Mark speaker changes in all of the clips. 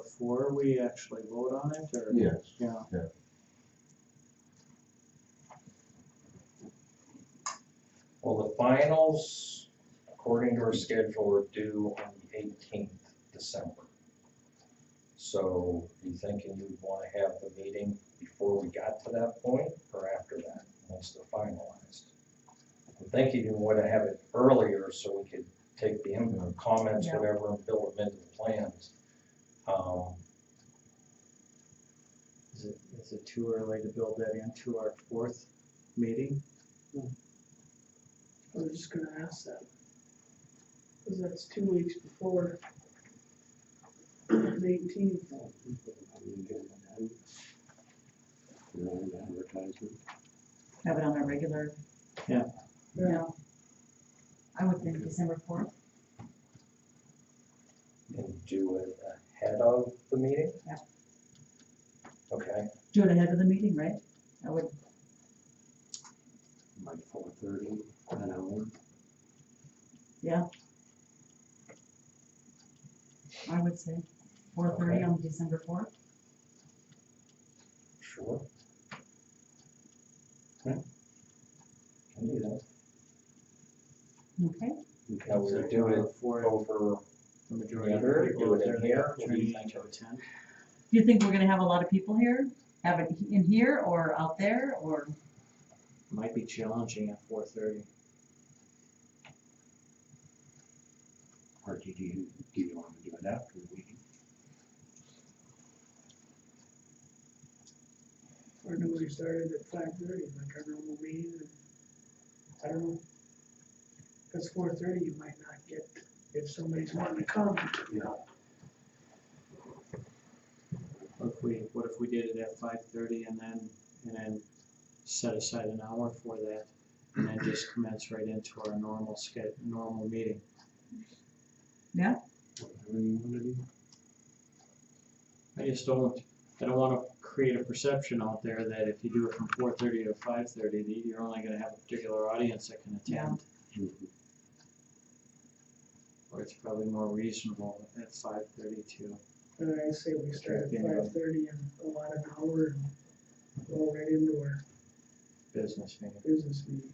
Speaker 1: before we actually vote on it, or?
Speaker 2: Yes.
Speaker 1: Yeah.
Speaker 2: Yeah.
Speaker 3: Well, the finals, according to our schedule, are due on the eighteenth December. So you thinking you'd wanna have the meeting before we got to that point or after that, once they're finalized? I'm thinking you wanna have it earlier so we could take the input, comments,
Speaker 4: Yeah.
Speaker 3: whatever, and build them into the plans. Um,
Speaker 1: Is it, is it too early to build that into our fourth meeting?
Speaker 5: I was just gonna ask that. Cause that's two weeks before the eighteenth.
Speaker 4: Have it on our regular.
Speaker 1: Yeah.
Speaker 4: Yeah. I would think December fourth,
Speaker 3: and do it ahead of the meeting?
Speaker 4: Yeah.
Speaker 3: Okay,
Speaker 4: do it ahead of the meeting, right? I would,
Speaker 6: like four thirty, an hour.
Speaker 4: I would say four thirty on December fourth.
Speaker 3: sure. Okay. Can do that.
Speaker 4: Okay,
Speaker 3: Now we would do it
Speaker 1: For
Speaker 3: over,
Speaker 1: the majority of
Speaker 3: Together,
Speaker 1: the people.
Speaker 3: do it in
Speaker 1: there, the
Speaker 3: here, what do
Speaker 1: opportunity
Speaker 3: you think?
Speaker 1: to attend.
Speaker 4: do you think we're gonna have a lot of people here? Have it in here or out there or,
Speaker 1: Might be challenging at four thirty.
Speaker 6: Or do you, do you wanna do it after the meeting?
Speaker 5: Or do we started at five thirty, like our normal meeting? and- I don't know. Cause four thirty, you might not get, if somebody's wanting to come,
Speaker 1: What if we, what if we did it at five thirty and then, and then set aside an hour for that? And then just commence right into our normal sched, normal meeting.
Speaker 6: Whatever you wanna do.
Speaker 1: I just don't, I don't wanna create a perception out there that if you do it from four thirty to five thirty, that you're only gonna have a particular audience that can attend. Or it's probably more reasonable at five thirty to,
Speaker 5: and I say we start
Speaker 1: Yeah.
Speaker 5: at five thirty and go on an hour and go right into our
Speaker 1: business meeting.
Speaker 5: business meeting.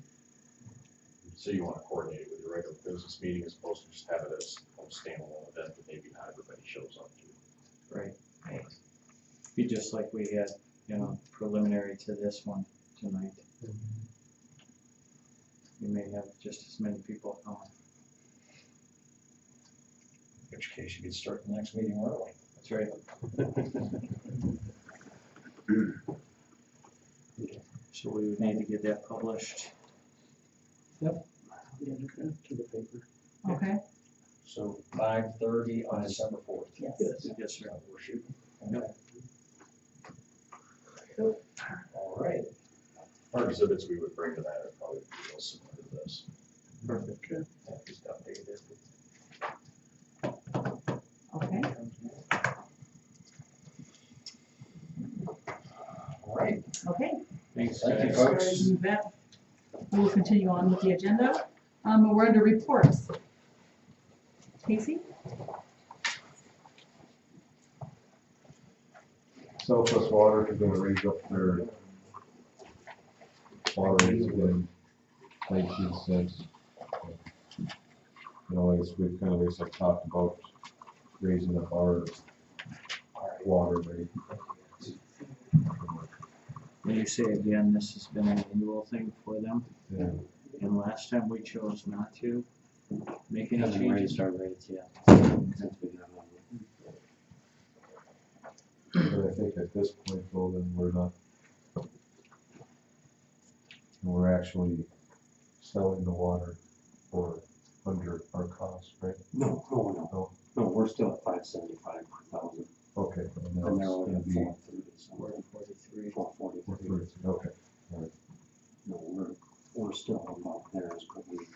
Speaker 7: So you wanna coordinate it with your regular business meeting as opposed to just have it as a standalone event that maybe not everybody shows up to.
Speaker 1: Right. Be just like we had, you know, preliminary to this one tonight. We may have just as many people coming.
Speaker 3: in which case you could start the next meeting early.
Speaker 1: That's right. So we would need to get that published.
Speaker 6: Yeah, look it up to the paper.
Speaker 4: okay,
Speaker 3: So five thirty on December fourth.
Speaker 4: yes.
Speaker 1: Yes, sir.
Speaker 3: We're shooting. All right,
Speaker 7: Our exhibits we would bring to that are probably real similar to this.
Speaker 1: Perfect.
Speaker 7: Yeah, Just updated it.
Speaker 4: Okay,
Speaker 3: all right.
Speaker 4: okay.
Speaker 1: Thanks,
Speaker 3: Thank you,
Speaker 1: guys.
Speaker 3: folks.
Speaker 4: You bet. We will continue on with the agenda. Um, we're under reports. Casey?
Speaker 2: Southwest Water is gonna raise up their water rates again, nineteen cents. You know, as we've kind of, as I talked about, raising up our water rate.
Speaker 1: When you say again, this has been an annual thing for them,
Speaker 2: And
Speaker 1: and last time we chose not to make any
Speaker 6: Hasn't
Speaker 1: changes.
Speaker 6: raised our rates yet. Since we've done that.
Speaker 2: But I think at this point, though, then we're not. We're actually selling the water for under our cost, right?
Speaker 6: No, no, no,
Speaker 2: No.
Speaker 6: no, we're still at five seventy-five per thousand,
Speaker 2: Okay. and now
Speaker 6: and they're
Speaker 2: it's
Speaker 6: only
Speaker 2: gonna
Speaker 6: at
Speaker 2: be
Speaker 6: four thirty, so
Speaker 1: We're at forty-three.
Speaker 6: four
Speaker 2: four
Speaker 6: forty-three.
Speaker 2: thirty, Okay.
Speaker 6: No, we're, we're still above theirs, but we,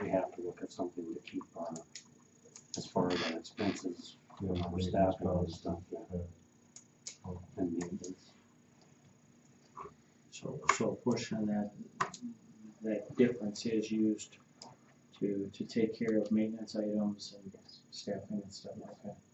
Speaker 6: we have to look at something to keep our, as far as our expenses,
Speaker 2: Yeah,
Speaker 6: our
Speaker 2: maybe
Speaker 6: staff
Speaker 2: it's
Speaker 6: and all
Speaker 2: not-
Speaker 6: this stuff, uh, yeah.
Speaker 2: Yeah.
Speaker 6: And maintenance.
Speaker 1: So, so a portion of that, that difference is used to, to take care of maintenance items and staffing and stuff like that.